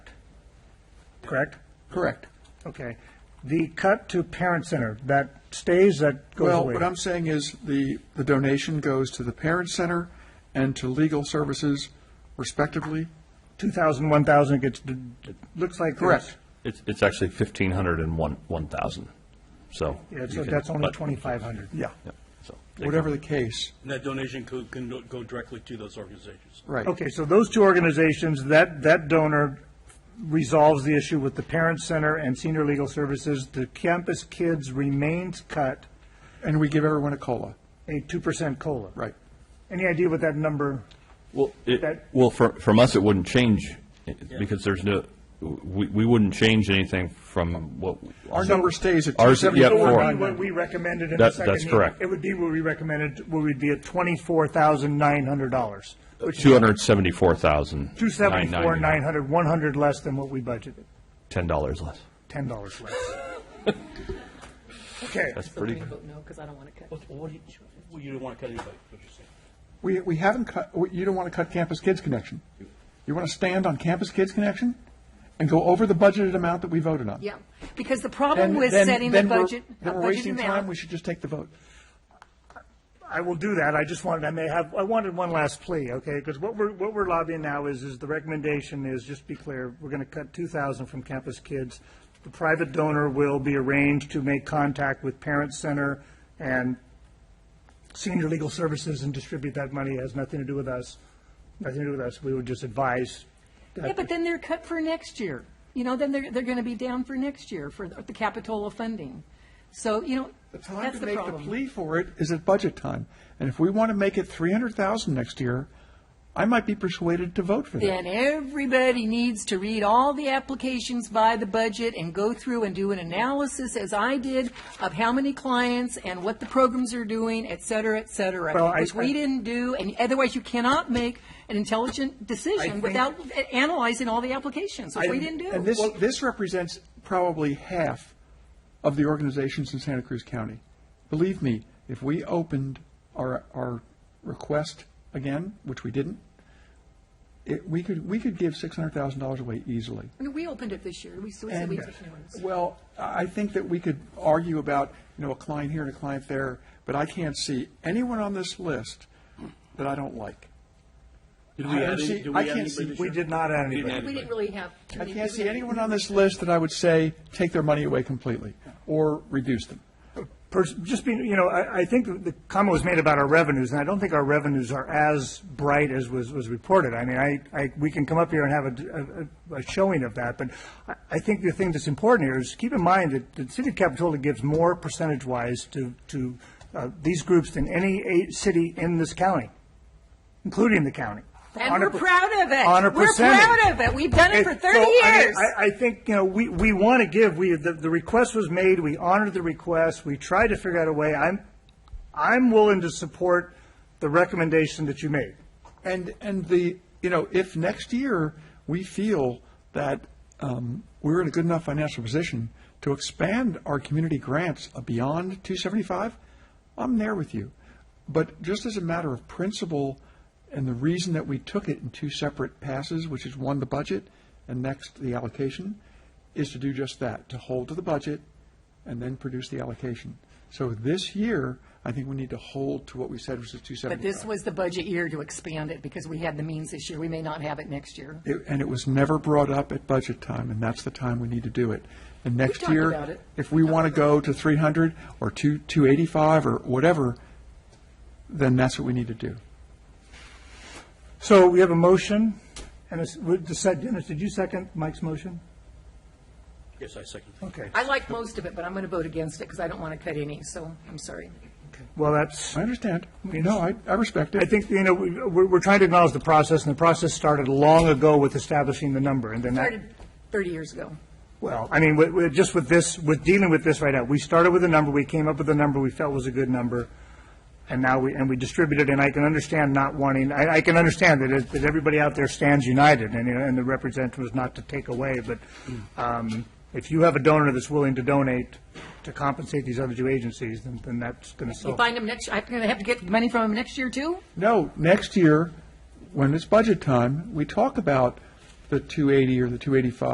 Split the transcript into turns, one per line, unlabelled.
correct?
Correct.
Okay. The cut to parent center, that stays, that goes
Well,
away?
what I'm saying is the, the donation goes to the parent center and to legal services respectively.
2,000, 1,000, it gets, d- d- looks like.
Correct.
It's, it's actually fifteen hundred and one, one thousand, so.
there's-
you
Yeah, so
can-
that's only
but-
2,500.
Yeah.
yeah, so they
Whatever
can-
the case,
And that donation could, can go- go directly to those organizations.
right.
Okay, so those two organizations, that, that donor resolves the issue with the parent center and senior legal services. The campus kids remains cut
And we give everyone a COLA,
a 2% COLA.
right.
Any idea what that number?
Well, it,
that-
well, for, from us, it wouldn't change, eh, because there's no, we, we wouldn't change anything from what.
Our number stays at
Ours- yeah,
It would be
four.
274.
what we recommended in the
That-
second.
that's
meeting.
correct.
It would be what we recommended, what would be at $24,900, which is
Two hundred seventy-four thousand.
274, 900, 100 less than what we budgeted,
Ten dollars less.
$10 less. Okay,
That's pretty good.
vote no, because I don't want to cut.
What do you, well, you don't want to cut anybody, what you saying?
We, we haven't cut, we- you don't want to cut Campus Kids Connection. You want to stand on Campus Kids Connection and go over the budgeted amount that we voted on.
Yeah, because the
Then-
problem with
then-
setting the
then we're-
budget, a
Then we're
budget
wasting time, we
amount.
should just take the vote.
I will do that. I just wanted, I may have, I wanted one last plea, okay? Because what we're, what we're lobbying now is, is the recommendation is, just be clear, we're going to cut 2,000 from campus kids. The private donor will be arranged to make contact with Parent Center and Senior Legal Services and distribute that money. It has nothing to do with us, nothing to do with us. We would just advise. that-
Yeah, but then they're cut for next year. You know, then they're, they're going to be down for next year for the Capitola funding. So, you know,
The time
that's
to
the
make the
problem.
plea for it is at budget time. And if we want to make it 300,000 next year, I might be persuaded to vote for that.
Then everybody needs to read all the applications by the budget and go through and do an analysis, as I did, of how many clients and what the programs are doing, et cetera, et
Well,
cetera,
I-
which
I-
we didn't do, and otherwise you cannot make an intelligent decision
think-
without analyzing all the applications, which we didn't do.
And this, this represents probably half of the organizations in Santa Cruz County. Believe me, if we opened our, our request again, which we didn't, it, we could, we could give $600,000 away easily.
I mean, we opened it this year. We so we said
And,
we took new ones.
well, I I think that we could argue about, you know, a client here and a client there, but I can't see anyone on this list that I don't like.
Did
I
we add
can't see-
any, did we
I
add
can't
anybody
see-
this
We
year?
did not add
We
anybody.
didn't add
We didn't
anybody.
really have.
I can't see anyone on this list that I would say, take their money away completely, or reduce them.
pers- just being, you know, I, I think the comment was made about our revenues, and I don't think our revenues are as bright as was, was reported. I mean, I, I, we can come up here and have a, a, a showing of that, but I, I think the thing that's important here is keep in mind that the city of Capitola gives more percentage-wise to, to, uh, these groups than any eight city in this county, including the county.
And
On a
we're
per-
proud of it.
On a
We're
percentage.
proud of it. We've done it for
Okay, so,
30
I mean,
years.
I, I think, you know, we, we want to give, we, the, the request was made, we honored the request, we tried to figure out a way. I'm, I'm willing to support the recommendation that you made.
And, and the, you know, if next year we feel that um, we're in a good enough financial position to expand our community grants beyond 275, I'm there with you. But just as a matter of principle and the reason that we took it in two separate passes, which is one, the budget, and next, the allocation, is to do just that, to hold to the budget and then produce the allocation. So this year, I think we need to hold to what we said, which is 275.
But this was the budget year to expand it because we had the means this year. We may not have it next year.
It- And it was never brought up at budget time, and that's the time we need to do it. And next
talked about
year,
it.
if we want to go to 300 or 2 285 or whatever, then that's what we need to do.
So we have a motion, and it's, with the set, Dennis, did you second Mike's motion?
Yes, I second.
Okay,
I like most of it, but I'm going to vote against it because I don't want to cut any, so I'm sorry.
well, that's,
I understand. No, I, I respect it.
I think, you know, we- we're, we're trying to acknowledge the process, and the process started long ago with establishing the number, and then that.
Started 30 years ago.
Well, I mean, we- we- just with this, with dealing with this right now, we started with a number, we came up with a number we felt was a good number, and now we, and we distributed, and I can understand not wanting, I, I can understand that, it- that everybody out there stands united, and, you know, and the representative is not to take away, but um, if you have a donor that's willing to donate to compensate these other two agencies, then, then that's going to
You
solve.
find them next, I'm going to have to get money from them next year too?
No, next year, when it's budget time, we talk about the 280 or the 285